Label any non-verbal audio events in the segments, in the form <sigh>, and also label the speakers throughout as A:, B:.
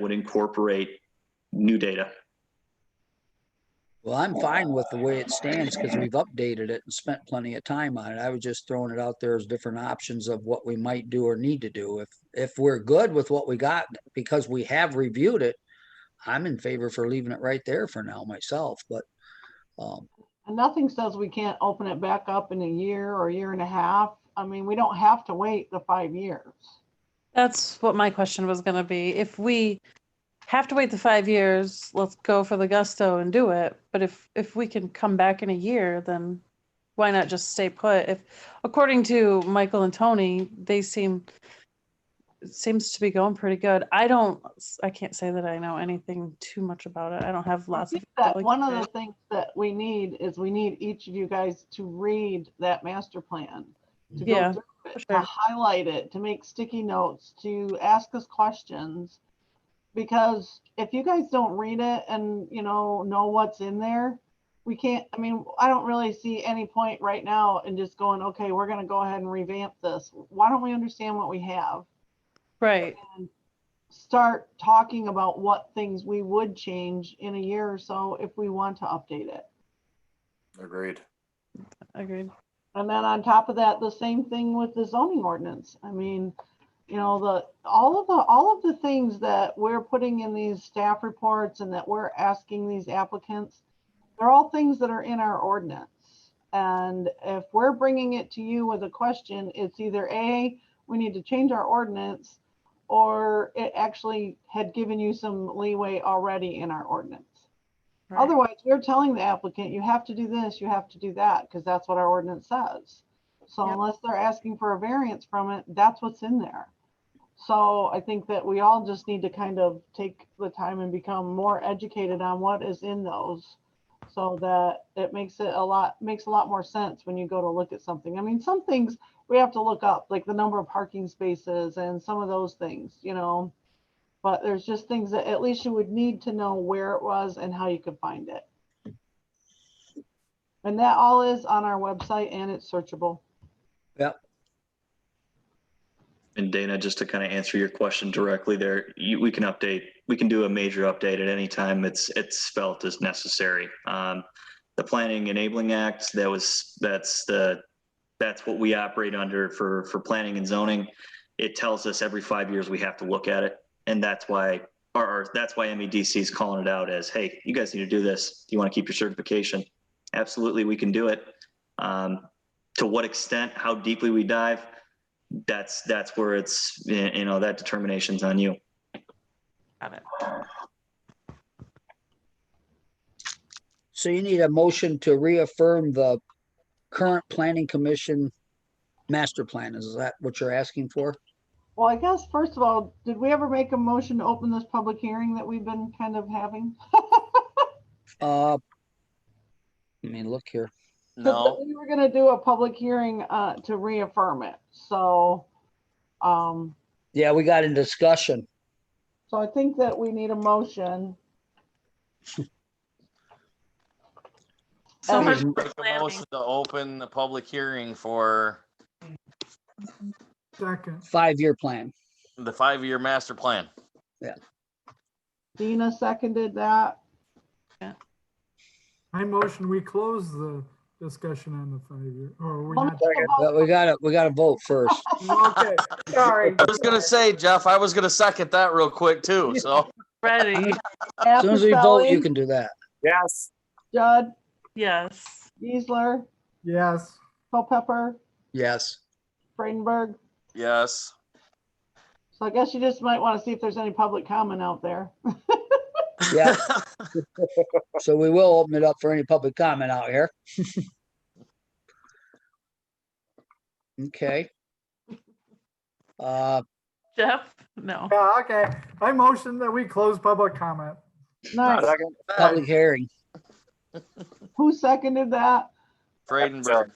A: would incorporate new data.
B: Well, I'm fine with the way it stands because we've updated it and spent plenty of time on it. I was just throwing it out there as different options of what we might do or need to do. If, if we're good with what we got, because we have reviewed it, I'm in favor for leaving it right there for now myself, but, um,
C: And nothing says we can't open it back up in a year or a year and a half. I mean, we don't have to wait the five years.
D: That's what my question was gonna be. If we have to wait the five years, let's go for the gusto and do it. But if, if we can come back in a year, then why not just stay put? If, according to Michael and Tony, they seem, it seems to be going pretty good. I don't, I can't say that I know anything too much about it. I don't have
C: I
D: lots of.
C: think that
D: like
C: one of
D: that.
C: the things that we need is we need each of you guys to read that master plan. to go
D: Yeah,
C: through it,
D: sure.
C: To highlight it, to make sticky notes, to ask us questions. Because if you guys don't read it and, you know, know what's in there, we can't, I mean, I don't really see any point right now in just going, okay, we're gonna go ahead and revamp this. Why don't we understand what we have?
D: Right,
C: Start talking about what things we would change in a year or so if we want to update it.
E: Agreed.
D: agreed.
C: And then on top of that, the same thing with the zoning ordinance. I mean, you know, the, all of the, all of the things that we're putting in these staff reports and that we're asking these applicants, they're all things that are in our ordinance. And if we're bringing it to you with a question, it's either A, we need to change our ordinance, or it actually had given you some leeway already in our ordinance.
D: Right.
C: Otherwise, we're telling the applicant, you have to do this, you have to do that, because that's what our ordinance says. So
D: Yep.
C: unless they're asking for a variance from it, that's what's in there. So I think that we all just need to kind of take the time and become more educated on what is in those. So that it makes it a lot, makes a lot more sense when you go to look at something. I mean, some things we have to look up, like the number of parking spaces and some of those things, you know? But there's just things that at least you would need to know where it was and how you could find it. And that all is on our website and it's searchable.
A: And Dana, just to kind of answer your question directly there, you, we can update, we can do a major update at any time it's, it's felt as necessary. Um, the Planning Enabling Act, that was, that's the, that's what we operate under for, for planning and zoning. It tells us every five years we have to look at it. And that's why, or, or that's why MEDC is calling it out as, hey, you guys need to do this. Do you want to keep your certification? Absolutely, we can do it. Um, to what extent, how deeply we dive, that's that's where it's y- you know that determination's on you
D: Got it.
B: so you need a motion to reaffirm the current planning commission master plan. Is that what you're asking for?
C: Well, I guess, first of all, did we ever make a motion to open this public hearing that we've been kind of having?
B: <laughs> Uh, I mean, look here.
C: But <laughs> We were gonna do a public hearing, uh, to reaffirm it, so, um,
B: Yeah, we got in discussion.
C: so I think that we need a motion.
D: So
C: Um,
D: much
B: Make
E: Make a
D: planning.
E: motion to open the public hearing for
F: Second,
B: Five-year plan.
E: the five-year master plan.
C: Dina seconded that.
F: I motion we close the discussion on the five-year, or we not?
B: But we gotta, we gotta vote first.
F: Okay, sorry.
E: I was gonna say, Jeff, I was gonna second that real quick too, so.
C: <laughs>
D: Ready,
B: As soon as we vote, you can do that.
E: Yes.
C: Judd,
D: yes.
C: Geisler,
F: Yes,
C: Culpepper,
B: Yes.
C: Freidenberg.
E: Yes.
C: So I guess you just might want to see if there's any public comment out there.
B: Yeah, so we will open it up for any public comment out here. Okay. Uh,
D: Jeff? No.
F: yeah, okay. I motion that we close public comment.
C: Nice.
E: <laughs>
B: public hearing.
C: Who seconded that?
E: Freidenberg.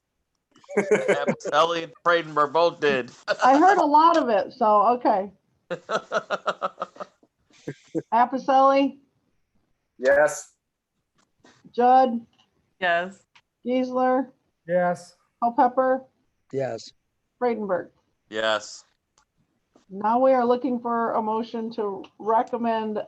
E: Ellie and Freidenberg both did. <laughs>
C: I heard a lot of it, so, okay. Appicelli,
E: Yes.
C: Judd,
D: Yes.
C: Geisler,
F: Yes,
C: Culpepper,
B: Yes,
C: Freidenberg.
E: Yes.
C: Now we are looking for a motion to recommend